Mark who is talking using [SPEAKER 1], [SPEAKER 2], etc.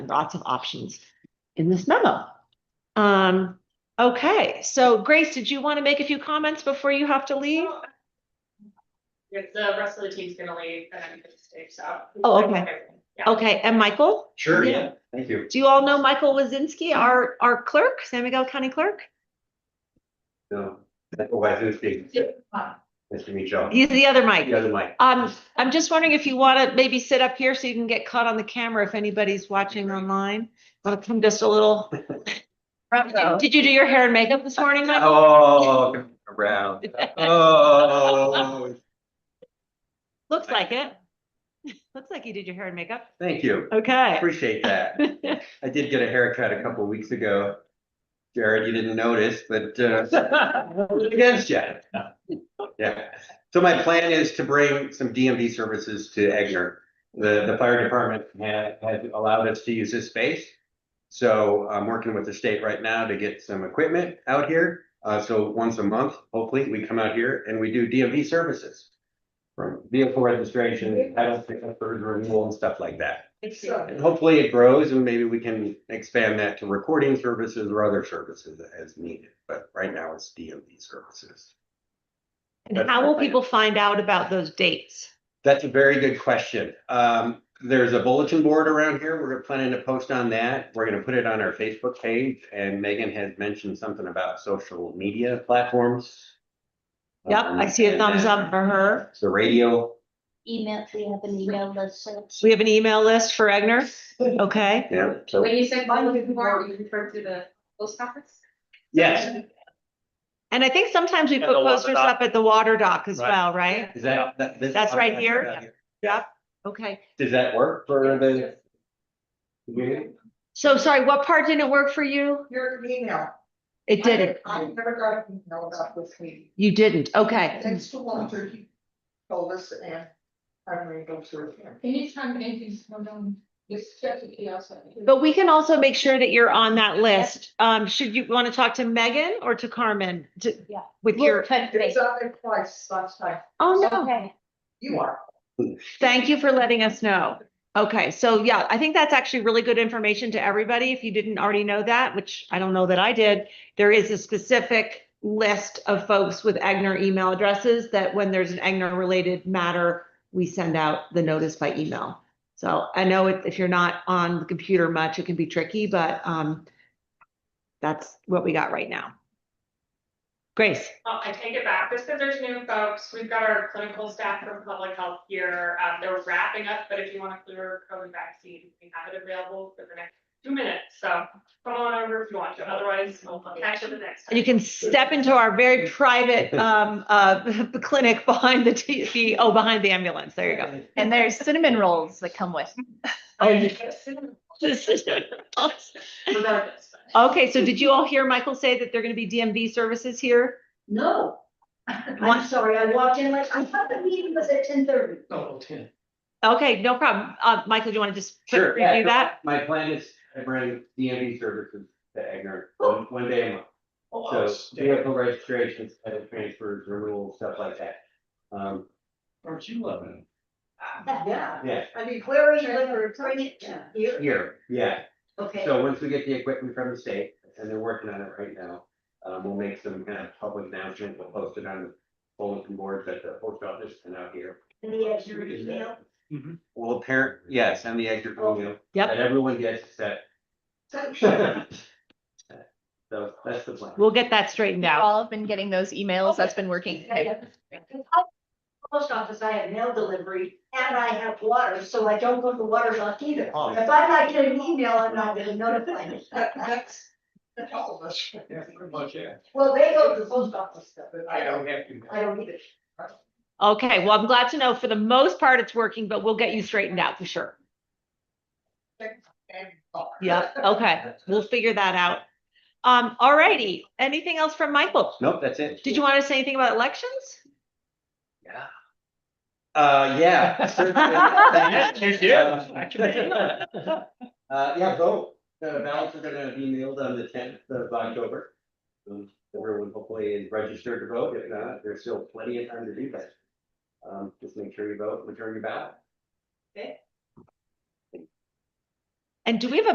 [SPEAKER 1] lots of options in this memo. Um, okay, so Grace, did you want to make a few comments before you have to leave?
[SPEAKER 2] Yeah, the rest of the team's gonna leave and I'm gonna stay, so.
[SPEAKER 1] Oh, okay.
[SPEAKER 2] Yeah.
[SPEAKER 1] Okay, and Michael?
[SPEAKER 3] Sure,
[SPEAKER 1] Yeah.
[SPEAKER 3] yeah, thank you.
[SPEAKER 1] Do you all know Michael Wazinski, our, our clerk, San Miguel County Clerk?
[SPEAKER 3] No, that's why I was being-
[SPEAKER 1] Oh.
[SPEAKER 3] Nice to meet y'all.
[SPEAKER 1] He's the other
[SPEAKER 3] The
[SPEAKER 1] Mike.
[SPEAKER 3] other mic.
[SPEAKER 1] Um, I'm just wondering if you want to maybe sit up here so you can get caught on the camera if anybody's watching online. Want to come just a little? Did you do your hair and makeup this morning, Michael?
[SPEAKER 3] Oh, come around, oh,
[SPEAKER 1] Looks like it. Looks like you did your hair and makeup.
[SPEAKER 3] thank you,
[SPEAKER 1] Okay.
[SPEAKER 3] appreciate that. I did get a haircut a couple weeks ago. Jared, you didn't notice, but uh, I was against you. Yeah, so my plan is to bring some DMV services to Egner. The, the fire department had, had allowed us to use this space. So I'm working with the state right now to get some equipment out here. Uh, so once a month, hopefully, we come out here and we do DMV services. From vehicle registration, title pickup, renewal and stuff like that. And hopefully it grows and maybe we can expand that to recording services or other services as needed, but right now it's DMV services.
[SPEAKER 1] And how will people find out about those dates?
[SPEAKER 3] That's a very good question. Um, there's a bulletin board around here. We're planning to post on that. We're gonna put it on our Facebook page and Megan has mentioned something about social media platforms.
[SPEAKER 1] Yep,
[SPEAKER 4] Uh,
[SPEAKER 1] I see a
[SPEAKER 3] Um,
[SPEAKER 1] thumbs up for her.
[SPEAKER 3] The radio,
[SPEAKER 5] Email, we have an email list, so it's-
[SPEAKER 1] We have an email list for Egner. Okay.
[SPEAKER 3] yeah, so,
[SPEAKER 2] When you said one week more, you referred to the post office?
[SPEAKER 3] yes,
[SPEAKER 1] And I think sometimes we
[SPEAKER 4] And
[SPEAKER 1] put
[SPEAKER 4] the water
[SPEAKER 1] posters
[SPEAKER 4] dock.
[SPEAKER 1] up at the water dock as
[SPEAKER 4] Right.
[SPEAKER 1] well, right?
[SPEAKER 3] is that? that- this-
[SPEAKER 1] That's right here? Okay.
[SPEAKER 3] Does that work for the?
[SPEAKER 1] So sorry, what part didn't work for you?
[SPEAKER 6] Your email.
[SPEAKER 1] It didn't.
[SPEAKER 6] I never got an email about this meeting.
[SPEAKER 1] You didn't. Okay.
[SPEAKER 6] Thanks to Walter, he told us and I'm gonna go through here.
[SPEAKER 7] Anytime anything's going on, just check the outside.
[SPEAKER 1] But we can also make sure that you're on that list. Um, should you want to talk to Megan or to Carmen? To-
[SPEAKER 5] Yeah.
[SPEAKER 1] With your,
[SPEAKER 6] It's on there twice last time.
[SPEAKER 1] oh no.
[SPEAKER 5] Okay,
[SPEAKER 6] You are.
[SPEAKER 1] Thank you for letting us know. Okay, so yeah, I think that's actually really good information to everybody. If you didn't already know that, which I don't know that I did, there is a specific list of folks with Agner email addresses that when there's an Agner related matter, we send out the notice by email. So I know if, if you're not on the computer much, it can be tricky, but um, that's what we got right now. Grace,
[SPEAKER 2] Oh, I take it back, just because there's new folks, we've got our clinical staff from public health here, um, they're wrapping up, but if you want to clear COVID vaccine, we have it available for the next two minutes, so come on over if you want to, otherwise we'll catch you the next.
[SPEAKER 1] And you
[SPEAKER 2] time.
[SPEAKER 1] can step into our very private um uh clinic behind the T the oh, behind the ambulance. There you go. Oh,
[SPEAKER 8] And there's cinnamon rolls that come with.
[SPEAKER 2] Regardless, but-
[SPEAKER 1] Okay, so did you all hear Michael say that they're gonna be DMV services here?
[SPEAKER 6] No.
[SPEAKER 1] What?
[SPEAKER 6] I'm sorry, I walked in like, I thought the meeting was at ten thirty.
[SPEAKER 4] Oh, ten.
[SPEAKER 1] Okay, no problem. Uh, Michael, do you want to just
[SPEAKER 3] Sure.
[SPEAKER 1] review that?
[SPEAKER 3] My plan is to bring DMV services to Egner one, one day a month.
[SPEAKER 4] Oh,
[SPEAKER 3] So
[SPEAKER 4] snap.
[SPEAKER 3] vehicle registrations, title transfers, renewal, stuff like that. Um,
[SPEAKER 4] Aren't you loving
[SPEAKER 6] Yeah,
[SPEAKER 3] yeah,
[SPEAKER 6] I mean, where are you gonna return it to? Here?
[SPEAKER 3] here, yeah.
[SPEAKER 6] Okay.
[SPEAKER 3] So once we get the equipment from the state, and they're working on it right now, um, we'll make some kind of public announcement, we'll post it on the bulletin boards at the post office and out here.
[SPEAKER 6] And the extra email. Oh,
[SPEAKER 3] Well, apparent, yes, and the exit email.
[SPEAKER 1] Yep.
[SPEAKER 3] That everyone gets set. So that's the plan.
[SPEAKER 1] We'll get that straightened
[SPEAKER 8] We've
[SPEAKER 1] out.
[SPEAKER 8] all have been getting those emails. That's been working.
[SPEAKER 6] Post office, I have mail delivery and I have water, so I don't go to water lock either. If
[SPEAKER 4] Oh.
[SPEAKER 6] I might get an email, I'm not gonna notify me. That's, that's all of us.
[SPEAKER 4] Yeah, pretty much, yeah.
[SPEAKER 6] Well, they go to the post office, but I don't,
[SPEAKER 4] have to.
[SPEAKER 6] I don't either.
[SPEAKER 1] Okay, well, I'm glad to know for the most part it's working, but we'll get you straightened out for sure. Yeah, okay, we'll figure that out. Um, alrighty, anything else from Michael?
[SPEAKER 3] Nope, that's it.
[SPEAKER 1] Did you want to say anything about elections?
[SPEAKER 3] Uh, yeah. certainly.
[SPEAKER 4] You did. I can believe that.
[SPEAKER 3] Uh, yeah, vote. The ballots are gonna be mailed on the tenth of October. Um, Everyone hopefully is registered to vote. If not, there's still plenty of time to do that. Um, just make sure you vote, return your ballot.
[SPEAKER 1] And do we have a